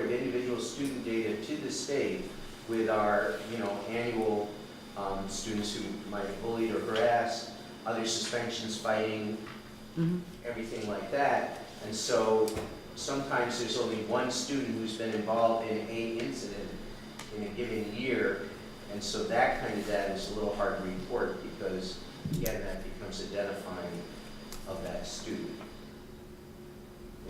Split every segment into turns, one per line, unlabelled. individual student data to the state with our, you know, annual um, students who might have bullied or harassed, other suspensions, fighting,
Mhm.
everything like that. And so sometimes there's only one student who's been involved in a incident in a given year. And so that kind of data is a little hard to report because, again, that becomes identifying of that student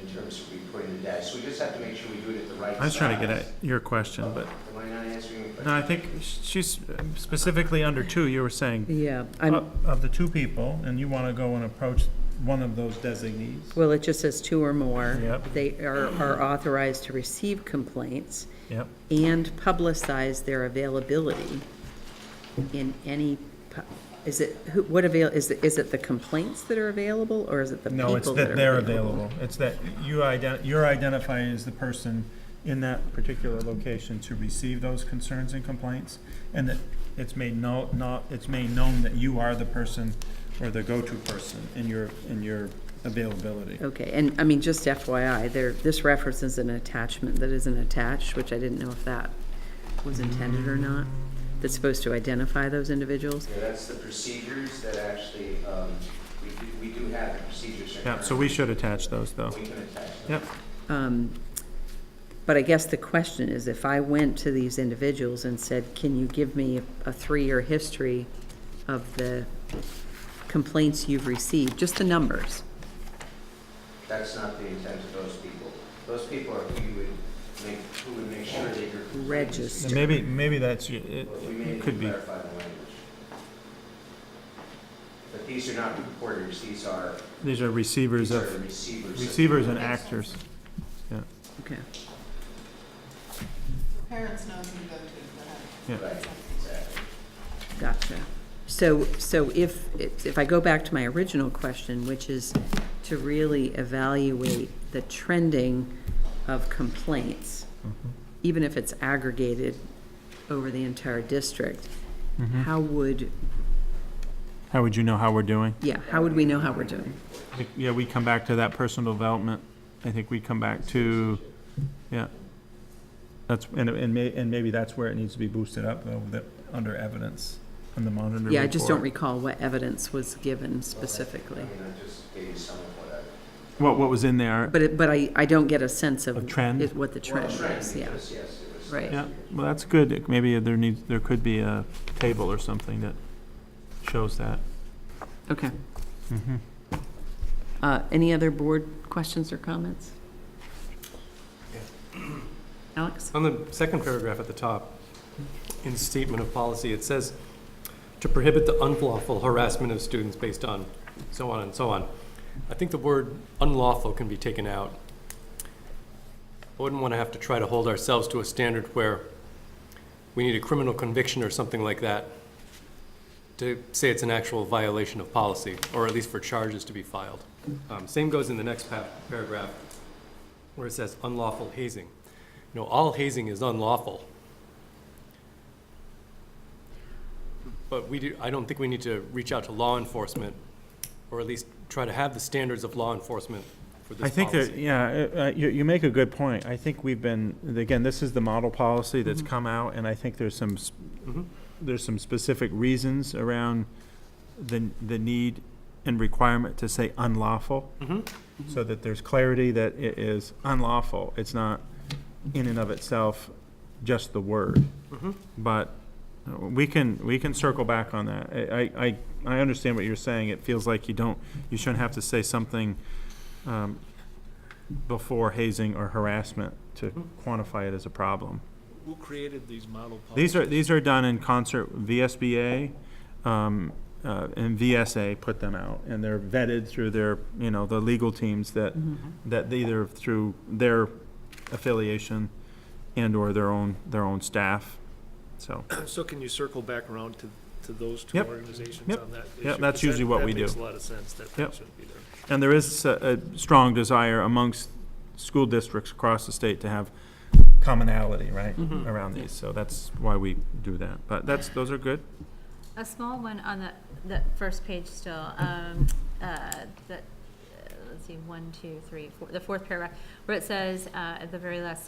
in terms of reporting the data. So we just have to make sure we do it at the right time.
I was trying to get at your question, but,
Am I not answering your question?
no, I think she's specifically under two, you were saying,
Yeah, I'm,
of of the two people, and you want to go and approach one of those designees.
well, it just says two or more.
Yep.
They are, are authorized to receive complaints
Yep,
and publicize their availability in any, pu- is it, who, what avail, is it, is it the complaints that are available, or is it the people that
no,
are
it's
available?
that they're available, it's that you ident, you're identifying as the person in that particular location to receive those concerns and complaints, and that it's made no, not, it's made known that you are the person or the go-to person in your, in your availability.
Okay, and, I mean, just FYI, there, this references an attachment that isn't attached, which I didn't know if that was intended or not, that's supposed to identify those individuals.
Yeah, that's the procedures that actually, um, we do, we do have the procedures. in
Yeah, so
our-
we should attach those, though.
We can attach them.
Yep.
Um, But I guess the question is, if I went to these individuals and said, can you give me a three-year history of the complaints you've received, just the numbers?
That's not the intent of those people. Those people are who you would make, who would make sure that you're.
Register.
And maybe, maybe that's, it
But we may
it
need to
could be,
clarify the language. But these are not reporters, these are,
these are
these
receivers
are the
of,
receivers. of-
receivers and actors.
Okay.
Parents know who to go to,
Yeah.
Right, exactly.
Gotcha. So, so if, if I go back to my original question, which is to really evaluate the trending of complaints,
Mm-hmm.
even if it's aggregated over the entire district,
Mhm.
how would,
How would you know how we're doing?
yeah, how would we know how we're doing?
I think, Yeah, we come back to that personal development. I think we come back to, yeah. That's, and, and may, and maybe that's where it needs to be boosted up, though, that, under evidence, on the monitor report.
Yeah, I just don't recall what evidence was given specifically.
I mean, I just gave you some of what I.
What, what was in there?
But it, but I, I don't get a sense of.
A trend?
it- What the
Well,
trend is,
trend,
yeah.
because, yes, it was.
Right.
Yeah, well, that's good. Maybe there needs, there could be a table or something that shows that.
Okay.
Mhm.
Uh, Any other board questions or comments? Alex?
On the second paragraph at the top, in statement of policy, it says, "To prohibit the unlawful harassment of students based on," so on and so on. I think the word unlawful can be taken out. I wouldn't want to have to try to hold ourselves to a standard where we need a criminal conviction or something like that to say it's an actual violation of policy, or at least for charges to be filed. Um, Same goes in the next pa- paragraph, where it says unlawful hazing. You know, all hazing is unlawful. But we do, I don't think we need to reach out to law enforcement, or at least try to have the standards of law enforcement for this
I
policy.
think that, yeah, uh, uh, you, you make a good point. I think we've been, again, this is the model policy that's
Mm-hmm.
Mhm.
come out, and I think there's some, s-
Mhm.
there's some specific reasons around the, the need and requirement to say unlawful,
Mhm.
so that there's clarity that it is unlawful. It's not in and of itself just the word.
Mhm.
But uh, we can, we can circle back on that. I, I, I- I understand what you're saying. It feels like you don't, you shouldn't have to say something um, before hazing or harassment to
Mhm.
quantify it as a problem.
Who created these model policies?
These are, these are done in concert, VSBA um, uh, and VSA put them out, and they're vetted through their, you know, the legal teams that, that either through their affiliation and/or their own, their own staff, so.
So can you circle back around to, to those two
Yep.
organizations
Yep.
on that?
Yeah,
issue?
that's
'Cause
usually
that-
what
that
we do.
makes a lot of sense, that that
Yep.
should be there.
And there is a, a strong desire amongst school districts across the state to have commonality, right,
Mhm.
around these, so that's why we do that. But that's, those are good.
A small one on the, the first page still, um, uh, the, uh, let's see, one, two, three, four, the fourth paragraph, where it says, uh, at the very last